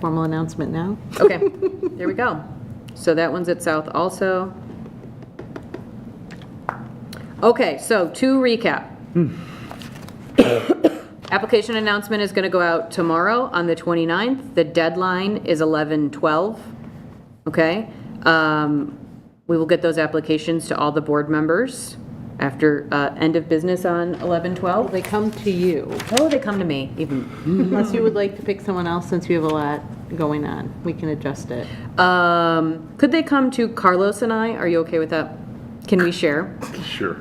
Formal announcement now? Okay, there we go. So that one's at South also. Okay, so to recap. Application announcement is going to go out tomorrow on the 29th. The deadline is 11/12, okay? Um, We will get those applications to all the board members after uh, end of business on 11/12. They come to you, Oh, they come to me, even unless you would like to pick someone else, since you have a lot going on. We can adjust it. Um, could they come to Carlos and I? Are you okay with that? Can we share? Sure.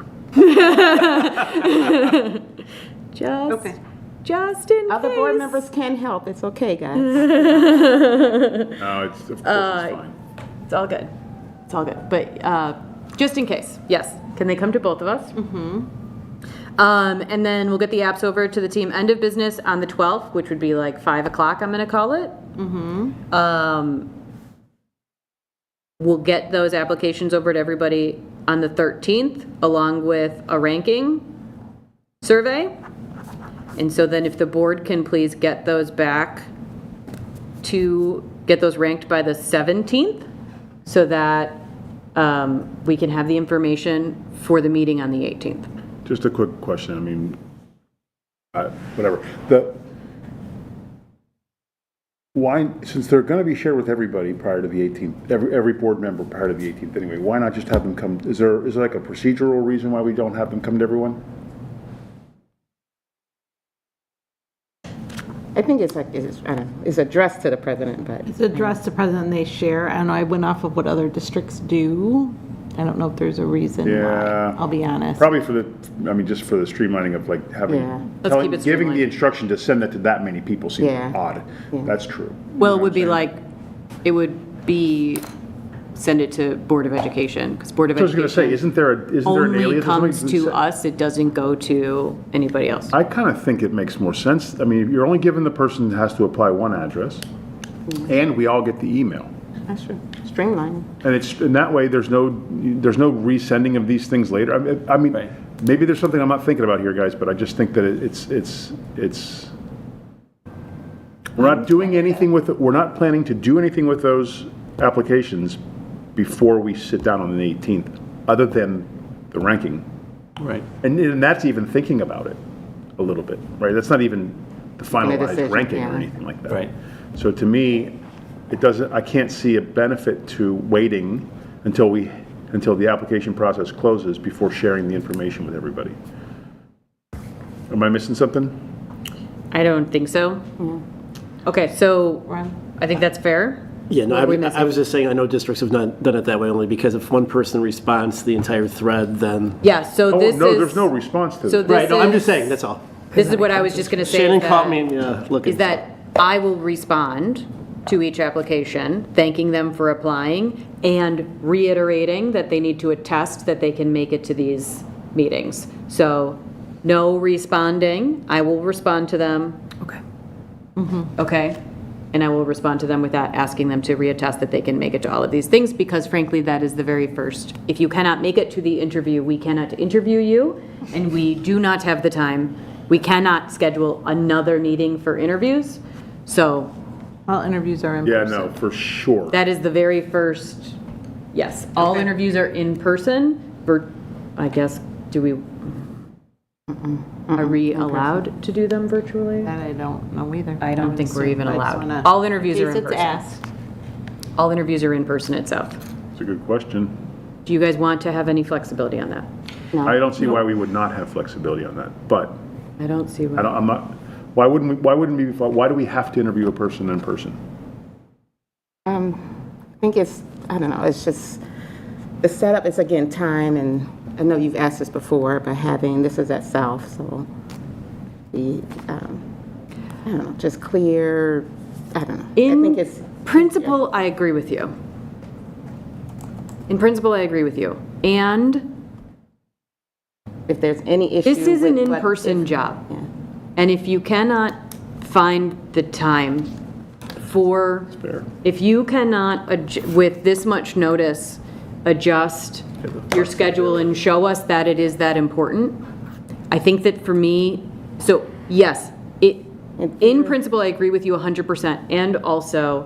Just, Okay. just in Other board case. members can help, it's okay, guys. No, it's, of course, it's Uh, fine. It's all good. It's all good, but, uh, Just in case, yes. Can they come to both of us? Mm-hmm. Um, and then we'll get the apps over to the team. End of business on the 12th, which would be like 5 o'clock, I'm going to call it. Mm-hmm. Um, we'll get those applications over to everybody on the 13th, along with a ranking survey. And so then if the board can please get those back to get those ranked by the 17th so that um, we can have the information for the meeting on the 18th. Just a quick question, I mean, uh, whatever. The, why, since they're going to be shared with everybody prior to the 18th, every, every board member prior to the 18th anyway, why not just have them come, is there, is there like a procedural reason why we don't have them come to everyone? I think it's like, it's, I don't know, it's addressed to the president, but It's addressed to president, they share, I don't know, I went off of what other districts do. I don't know if there's a reason why, Yeah. I'll be honest. Probably for the, I mean, just for the streamlining of like having, Yeah. Let's telling- keep it giving streamlined. the instruction to send that to that many people seems Yeah. odd. That's true. Well, it would be like, it would be, send it to Board of Education, because Board of I was going to say, Education isn't there, a- isn't there an only alias? or something? comes to us, it doesn't go to anybody else. I kind of think it makes more sense. I mean, you're only giving the person that has to apply one address, and we all get the email. that's true. Streamlining. And it's, in that way, there's no, there's no resending of these things later. I mean- I mean, maybe there's something I'm not thinking about here, guys, but I just think that it- it's, it's, it's, we're not doing anything with, it. we're not planning to do anything with those applications before we sit down on the 18th, other than the ranking. Right. And, and that's even thinking about it a little bit, right? That's not even the finalized decision, ranking or yeah. anything like that. Right. So to me, it doesn't, I can't see a benefit to waiting until we, until the application process closes before sharing the information with everybody. Am I missing something? I don't think so. Okay, so Ron? I think that's fair. Yeah, no, What I are we was- I missing? was just saying, I know districts have not done it that way only because if one person responds to the entire thread, then. Yeah, so Oh, this is. no, there's no response to So that. this Right, no, I'm is- just saying, that's all. This is what I was just going to say. Shannon that- caught me, uh, looking. is that I will respond to each application, thanking them for applying and reiterating that they need to attest that they can make it to these meetings. So no responding, I will respond to them. Okay. Okay? And I will respond to them with that, asking them to reattest that they can make it to all of these things because frankly, that is the very first. If you cannot make it to the interview, we cannot interview you and we do not have the time. We cannot schedule another meeting for interviews. So All interviews are in Yeah, person. no, for sure. that is the very first, yes, all Okay. interviews are in person. Vir- I guess, do we, are we allowed to do them virtually? That I don't know either. I don't would think we're assume, even but I just allowed. wanna- All interviews are case in it's person. asked. All interviews are in person at South. It's a good question. Do you guys want to have any flexibility on that? I don't see why we would not have flexibility on that, but I don't see I why. don't, I'm not, why wouldn't we, why wouldn't we, why do we have to interview a person in person? I think it's, I don't know, it's just, the setup is again time and I know you've asked this before, but having, this is at South, so the, um, I don't know, just clear, I don't know. I think it's, In principle, I agree with you. In principle, I agree with you. And if there's any issue. this is an with what- in-person job. Yeah. And if you cannot find the time for, fair. if you cannot, adj- with this much notice, adjust your schedule and show us that it is that important, I think that for me, so yes, it, And- In principle, I agree with you 100%. And also,